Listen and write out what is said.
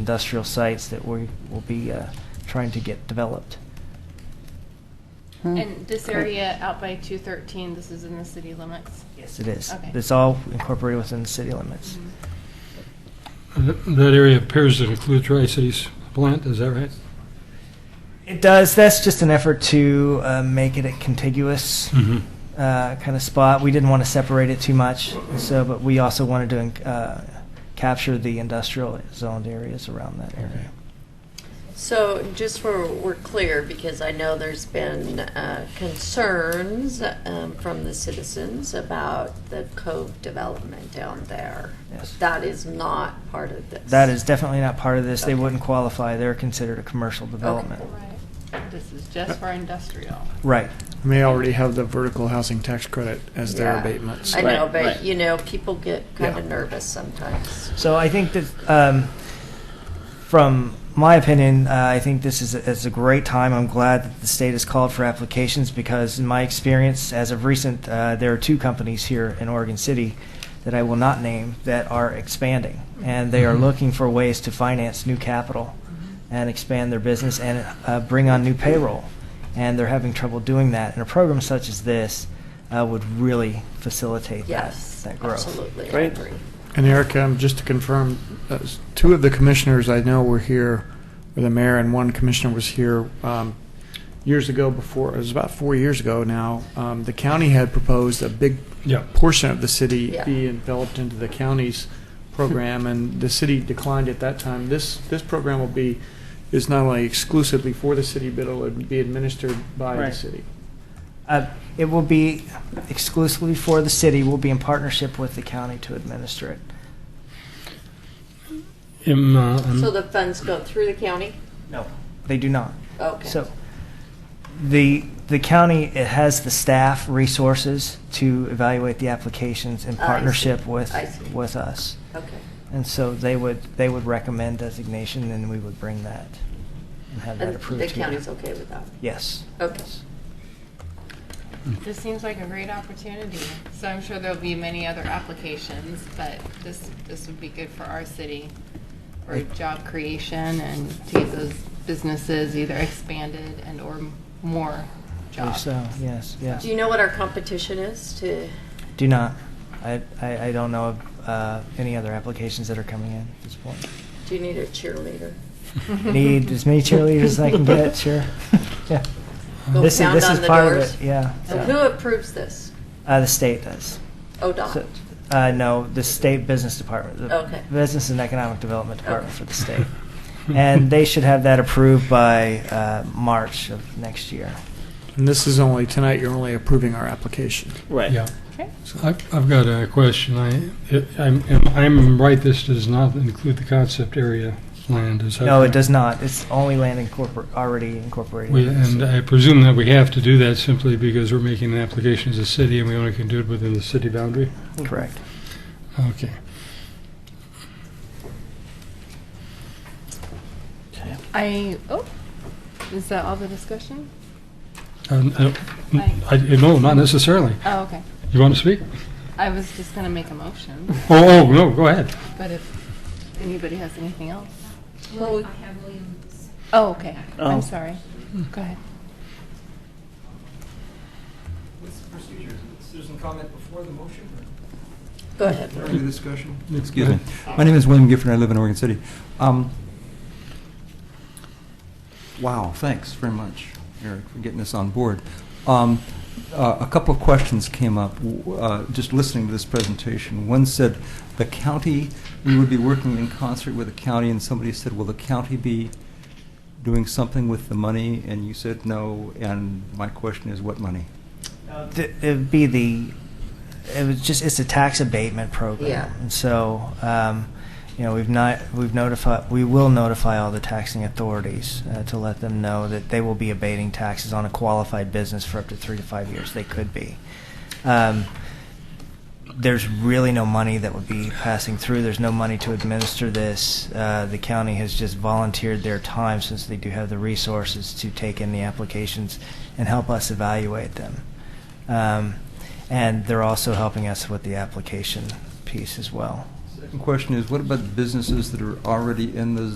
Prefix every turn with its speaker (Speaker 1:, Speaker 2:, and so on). Speaker 1: industrial sites that we will be uh, trying to get developed. Mm.
Speaker 2: Hmm.
Speaker 3: And this area out by 213, this is in the city limits?
Speaker 1: Yes, it is.
Speaker 3: Okay.
Speaker 1: It's all incorporated within the city limits.
Speaker 3: Mhm.
Speaker 4: Th- Uh, That area appears to include Tri-Cities plant, is that right?
Speaker 1: It does. That's just an effort to uh, make it a contiguous
Speaker 4: Mm-hmm.
Speaker 1: uh, kind of spot. We didn't want to separate it too much, so but we also wanted to uh, capture the industrial zoned areas around that area.
Speaker 2: So just for, we're clear, because I know there's been uh, concerns um, from the citizens about the cove development down there.
Speaker 1: Yes.
Speaker 2: That is not part of this.
Speaker 1: That is definitely not part of this. They
Speaker 2: Okay.
Speaker 1: wouldn't qualify. They're considered a commercial development.
Speaker 3: Right. This is just for industrial.
Speaker 1: Right.
Speaker 5: And They already have the vertical housing tax credit as their
Speaker 2: Yeah.
Speaker 5: abatements.
Speaker 2: I know,
Speaker 6: right.
Speaker 2: but, you know, people get kind of
Speaker 5: Yeah.
Speaker 2: nervous sometimes.
Speaker 1: So I think that, um, from my opinion, uh, I think this is a, is a great time. I'm glad that the state has called for applications because, in my experience, as of recent, uh, there are two companies here in Oregon City that I will not name that are expanding, and they are
Speaker 4: Mhm.
Speaker 1: looking for ways to finance new capital and expand their business and uh, bring on new payroll, and they're having trouble doing that. And a program such as this uh, would really facilitate
Speaker 2: Yes,
Speaker 1: that that growth.
Speaker 2: absolutely, I
Speaker 6: Great.
Speaker 2: agree.
Speaker 5: And Erica, um, just to confirm, uh, s- two of the commissioners I know were here, or the mayor and one commissioner was here um, years ago before, it was about four years ago now. Um, The county had proposed a big
Speaker 4: Yeah.
Speaker 5: portion of the city
Speaker 2: Yeah.
Speaker 5: be enveloped into the county's program, and the city declined at that time. This, this program will be, is not only exclusively for the city, but it'll be administered by the
Speaker 1: Right.
Speaker 5: city.
Speaker 1: Uh, It will be exclusively for the city. We'll be in partnership with the county to administer it.
Speaker 4: Am, uh, um,
Speaker 2: So the funds go through the county?
Speaker 1: No. They do not.
Speaker 2: Okay.
Speaker 1: So the, the county it has the staff resources to evaluate the applications in
Speaker 2: I see.
Speaker 1: partnership with,
Speaker 2: I see.
Speaker 1: with us.
Speaker 2: Okay.
Speaker 1: And so they would, they would recommend designation and we would bring that and have that
Speaker 2: And
Speaker 1: approved.
Speaker 2: the
Speaker 1: to you.
Speaker 2: county's okay with that?
Speaker 1: Yes.
Speaker 2: Okay.
Speaker 1: Yes.
Speaker 3: This seems like a great opportunity, so I'm sure there'll be many other applications, but this, this would be good for our city for job creation and to get those businesses either expanded and/or more
Speaker 1: I believe
Speaker 3: jobs.
Speaker 1: So, yes, yes.
Speaker 2: Do you know what our competition is to?
Speaker 1: Do not. I, I, I don't know of uh, any other applications that are coming in at this point.
Speaker 2: Do you need a cheerleader?
Speaker 1: Need as many cheerleaders as I can get, sure. Yeah.
Speaker 2: Go
Speaker 1: This is,
Speaker 2: pound
Speaker 1: this
Speaker 2: on
Speaker 1: is
Speaker 2: the
Speaker 1: part of
Speaker 2: doors.
Speaker 1: it, yeah.
Speaker 2: So Who approves this? Oh,
Speaker 1: Uh, the state does. So,
Speaker 2: ODOT.
Speaker 1: Uh, no, the state business department. the
Speaker 2: Okay.
Speaker 1: Business and Economic Development Department
Speaker 2: Okay.
Speaker 1: for the state.
Speaker 4: hmm.
Speaker 1: And they should have that approved by, uh, March of next year.
Speaker 5: And this is only, tonight, you're only approving our application.
Speaker 6: Right.
Speaker 4: Yeah.
Speaker 3: Okay.
Speaker 4: So I've, I've got a question. I, it- I'm, am- I'm right, this does not include the concept area land, is that?
Speaker 1: No, it
Speaker 4: correct?
Speaker 1: does not. It's only land incorpor, already incorporated.
Speaker 4: We-
Speaker 1: in the
Speaker 4: And
Speaker 1: city.
Speaker 4: I presume that we have to do that simply because we're making an application as a city and we only can do it within the city boundary?
Speaker 1: Correct.
Speaker 4: Okay.
Speaker 3: I, oh, is that all the discussion?
Speaker 4: Um, I don't-
Speaker 1: Mm.
Speaker 3: Aye.
Speaker 4: I, no, not necessarily.
Speaker 3: Oh, okay.
Speaker 4: You want to speak?
Speaker 3: I was just gonna make a motion,
Speaker 4: Oh, oh, no, go ahead.
Speaker 3: but if anybody has anything else.
Speaker 2: Well, we-
Speaker 7: William- I have Williams.
Speaker 3: Oh, okay.
Speaker 6: Oh.
Speaker 3: I'm sorry. Go ahead.
Speaker 8: What's the procedure? Citizen comment before the motion
Speaker 2: Go ahead.
Speaker 8: or during the discussion?
Speaker 9: Excuse me. My name is William Gifford. I live in Oregon City. Um, Wow, thanks very much, Eric, for getting us on board. Um, uh, A couple of questions came up w- uh, just listening to this presentation. One said, the county, we would be working in concert with the county, and somebody said, will the county be doing something with the money? And you said no, and my question is, what money?
Speaker 1: Th- It'd be the, it was just, it's a tax abatement program.
Speaker 2: Yeah.
Speaker 1: And so, um, you know, we've not, we've notified, we will notify all the taxing authorities uh, to let them know that they will be abating taxes on a qualified business for up to three to five years. They could be. Um, there's really no money that would be passing through. There's no money to administer this. Uh, the county has just volunteered their time since they do have the resources to take in the applications and help us evaluate them. Um, and they're also helping us with the application piece as well.
Speaker 9: Second question is, what about businesses that are already in the